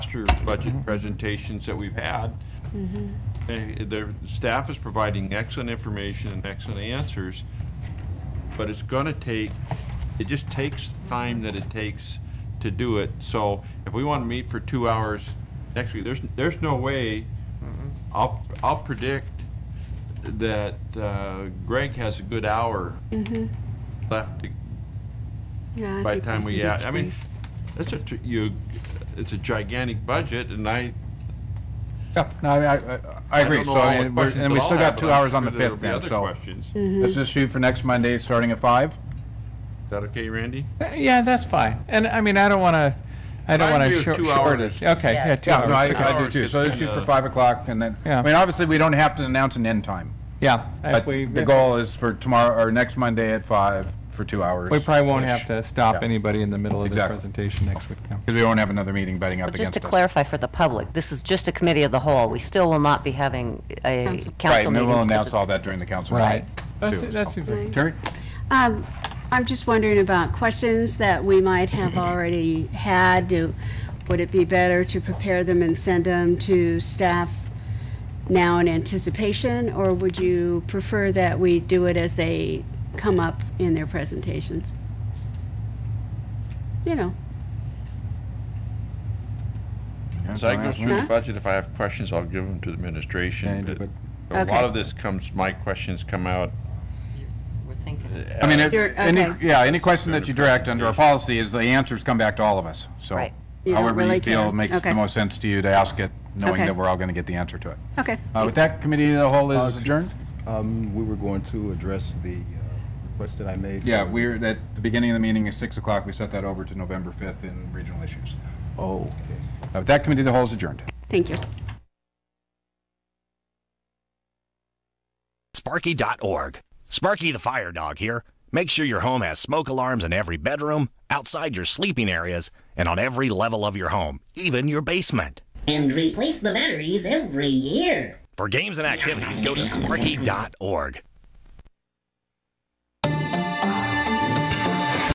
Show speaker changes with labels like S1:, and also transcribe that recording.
S1: disaster budget presentations that we've had. Eh, The staff is providing excellent information and excellent answers, but it's gonna take, it just takes time that it takes to do it. So if we wanna meet for two hours next week, there's, there's no way, I'll, I'll predict that uh, Greg has a good hour left to
S2: Mm-hmm. Yeah, I
S1: by the
S2: think
S1: time we
S2: should
S1: add, I mean,
S2: three.
S1: that's a, tr- you, it's a gigantic budget, and I,
S3: Yeah, no, I, mean, I- I, I
S1: I
S3: agree.
S1: don't know
S3: So,
S1: all
S3: I
S1: the
S3: mean, we're-
S1: questions
S3: and we
S1: that I'll
S3: still
S1: have,
S3: got
S1: but
S3: two
S1: I'm
S3: hours on
S1: sure
S3: the
S1: there'll
S3: fifth
S1: be
S3: then,
S1: other
S3: so.
S1: questions. Is
S3: Let's just shoot for next Monday, starting at five.
S1: that okay, Randy?
S4: Uh, Yeah, that's fine. And I mean, I don't want to, I don't
S1: I
S4: want to
S1: agree with
S4: short
S1: two hours.
S4: this. Okay, yeah,
S5: Yes.
S4: two
S3: Yeah, no,
S4: hours.
S3: I,
S1: Two
S3: I do
S1: hours
S3: too.
S1: gets
S3: So let's shoot for
S1: kinda-
S3: five o'clock and then,
S4: Yeah.
S3: I mean, obviously, we don't have to announce an end time.
S4: Yeah.
S3: But
S4: if we-
S3: the goal is for tomorrow, or next Monday at five for two hours.
S4: We probably won't have to stop
S3: Yeah.
S4: anybody in the middle of this
S3: Exactly.
S4: presentation next week. no.
S3: Because we won't have another meeting betting up
S5: So
S3: against
S5: just to
S3: us.
S5: clarify for the public, this is just a committee of the whole. We still will not be having a
S3: Right,
S2: Council.
S5: council
S3: and
S5: meeting.
S3: then we'll
S5: because
S3: announce
S5: it's-
S3: all that during the council.
S4: Right.
S3: meeting,
S4: That's-
S3: too,
S4: That
S3: so.
S4: seems like,
S3: Terry?
S2: Um, I'm just wondering about questions that we might have already had. Do- Would it be better to prepare them and send them to staff now in anticipation? Or would you prefer that we do it as they come up in their presentations? You know,
S1: As I go through the
S2: Huh?
S1: budget, if I have questions, I'll give them to the
S3: Yeah, you
S1: administration.
S3: do,
S1: but A
S2: Okay.
S1: lot of this comes, my questions come out.
S5: We're thinking,
S3: I mean,
S1: as-
S3: it-
S2: You're-
S3: any,
S2: okay.
S3: yeah, any question that you direct under our policy is the answers come back to all of us. So
S5: Right.
S2: You don't
S3: however you
S2: really
S3: feel
S2: care.
S3: makes the
S2: Okay.
S3: most sense to you to ask it, knowing
S2: Okay.
S3: that we're all going to get the answer to it.
S2: okay.
S3: Uh, With that, committee of the whole
S6: Uh,
S3: is adjourned?
S6: Um, we were going to address the uh, request that I made.
S3: Yeah,
S6: for-
S3: we're, at the beginning of the meeting is 6 o'clock. We set that over to November 5th in regional issues.
S6: Oh, okay.
S3: Uh, With that, committee of the whole is adjourned.
S2: Thank you.
S7: Sparky.org. Sparky the Fire Dog here. Make sure your home has smoke alarms in every bedroom, outside your sleeping areas, and on every level of your home, even your basement.
S8: and replace the batteries every year.
S7: For games and activities, go to sparky.org.